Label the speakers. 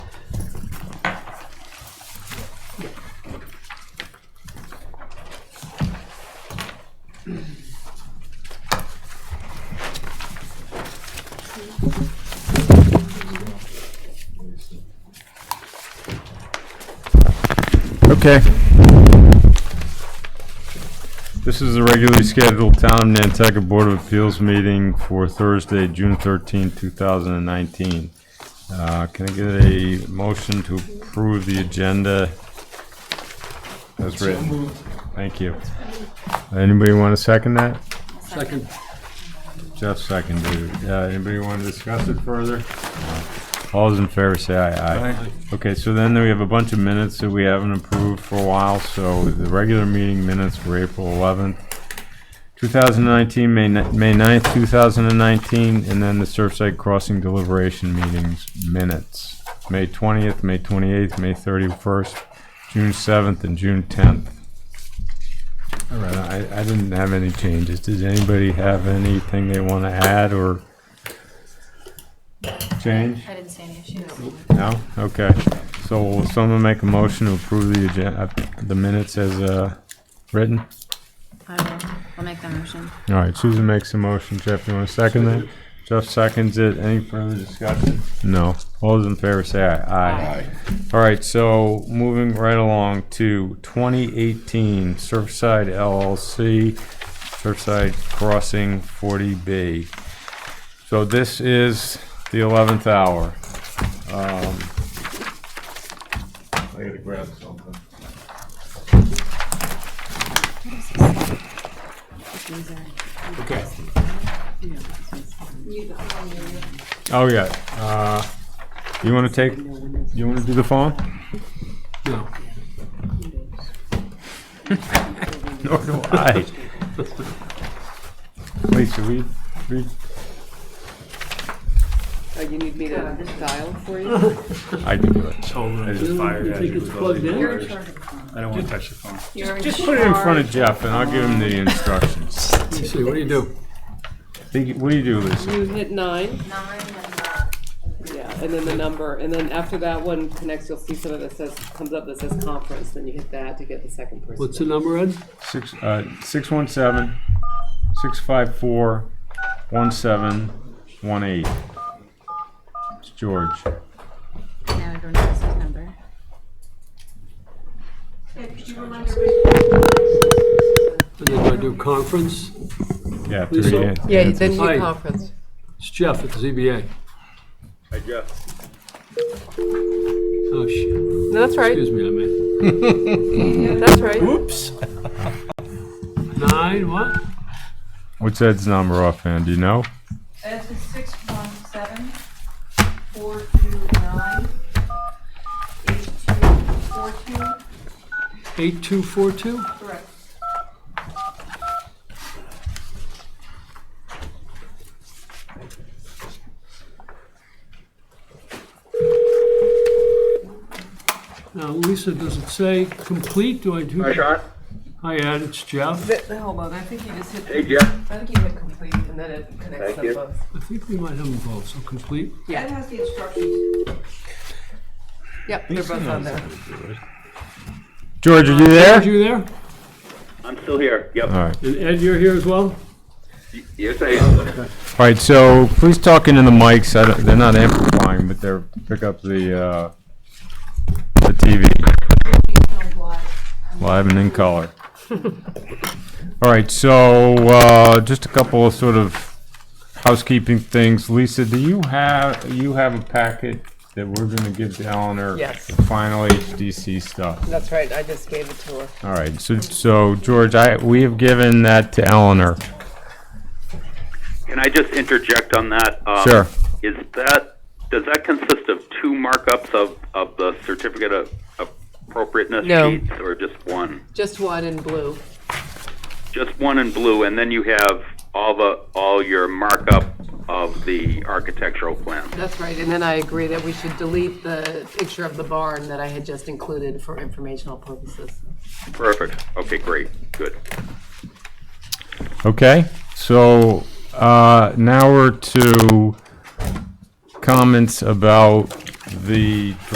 Speaker 1: Okay.
Speaker 2: This is the regularly scheduled Town of Nantucket Board of Appeals meeting for Thursday, June 13, 2019. Uh, Can I get a motion to approve the agenda as written? Thank you. Anybody want to second that?
Speaker 3: Second.
Speaker 2: Jeff seconded. it. Uh, Anybody want to discuss it further? No. All those in favor say aye. Aye. Okay, so then we have a bunch of minutes that we haven't approved for a while, so the regular meeting minutes for April 11th, 2019, May ni- May 9th, 2019, and then the Surfside Crossing deliberation meetings minutes, May 20th, May 28th, May 31st, June 7th, and June 10th. All right, I, I didn't have any changes. Does anybody have anything they want to add or change?
Speaker 4: I didn't see any issues.
Speaker 2: No? Okay. So will someone make a motion to approve the agenda, the minutes as, uh, written?
Speaker 4: I will, I'll make that motion.
Speaker 2: All right, Susan makes a motion. Jeff, you want to second that? Jeff seconds it. Any further discussion? No. All those in favor say aye. Aye. All right, so moving right along to 2018 Surfside LLC, Surfside Crossing 40B. So this is the 11th hour. Um, I gotta grab something.
Speaker 4: Uh,
Speaker 2: Okay. Oh, yeah. Uh, You want to take, you want to do the phone?
Speaker 3: No.
Speaker 2: Nor do I. Wait, should we read?
Speaker 5: Oh, you need me to dial for you?
Speaker 2: I can do it.
Speaker 6: I
Speaker 3: You
Speaker 6: just fired at
Speaker 3: think
Speaker 6: you.
Speaker 3: it's plugged in?
Speaker 6: You're in charge of the phone. I don't want to touch the phone.
Speaker 2: Just put it in front of Jeff and I'll give him the instructions.
Speaker 3: Let me see, what do you do?
Speaker 2: Think- What do you do, Lisa?
Speaker 5: You hit nine,
Speaker 4: Nine and,
Speaker 5: yeah, and then the number, and then after that one connects, you'll see something that says, comes up that says conference, then you hit that to get the second person.
Speaker 3: What's the number, Ed?
Speaker 2: Six, uh, six one seven, six five four, one seven, one eight. It's George.
Speaker 4: now everyone knows his number.
Speaker 3: And then do I do conference?
Speaker 2: Yeah,
Speaker 3: Lisa?
Speaker 2: three. in-
Speaker 5: Yeah,
Speaker 2: in-
Speaker 5: then you
Speaker 3: Hi.
Speaker 5: hit conference.
Speaker 3: It's Jeff at the ZBA.
Speaker 2: Hi, Jeff.
Speaker 3: Oh, shit.
Speaker 5: No, that's right,
Speaker 3: Excuse me, I mean.
Speaker 5: that's right.
Speaker 3: Oops. Nine, what?
Speaker 2: What's Ed's number offhand? Do you know?
Speaker 7: Ed's is six one seven, four two nine, eight two four two,
Speaker 3: Eight two four two?
Speaker 7: correct.
Speaker 3: Now, Lisa, does it say complete? Do I do? Hi, Sean. Hi, Ed, it's Jeff.
Speaker 5: Hold on, I think you just hit. Hey, Jeff. I think you hit complete, and then it connects us both.
Speaker 3: I think we might have them both, so complete.
Speaker 7: Ed has the instructions.
Speaker 5: Yep, they're both on there.
Speaker 2: George, are you
Speaker 3: Ed,
Speaker 2: there?
Speaker 3: you there?
Speaker 8: I'm still here, yep.
Speaker 2: All right.
Speaker 3: And Ed, you're here as well?
Speaker 8: Yes, I am.
Speaker 2: All right, so please talk into the mics. I don't- They're not amplifying, but they're, pick up the, uh, the TV, live and in color. All right, so, uh, just a couple of sort of housekeeping things. Lisa, do you have, you have a packet that we're gonna give to Eleanor?
Speaker 5: Yes.
Speaker 2: the Final HDC stuff.
Speaker 5: That's right, I just gave it to her.
Speaker 2: All right, so, so George, I, we have given that to Eleanor.
Speaker 8: Can I just interject on that? Um,
Speaker 2: Sure.
Speaker 8: Is that, does that consist of two markups of, of the certificate of appropriateness
Speaker 5: No.
Speaker 8: sheets? Or just one?
Speaker 5: Just one in blue.
Speaker 8: Just one in blue, and then you have all the, all your markup of the architectural plan?
Speaker 5: That's right, and then I agree that we should delete the picture of the barn that I had just included for informational purposes.
Speaker 8: Perfect, okay, great, good.
Speaker 2: Okay, so uh, now we're to comments about the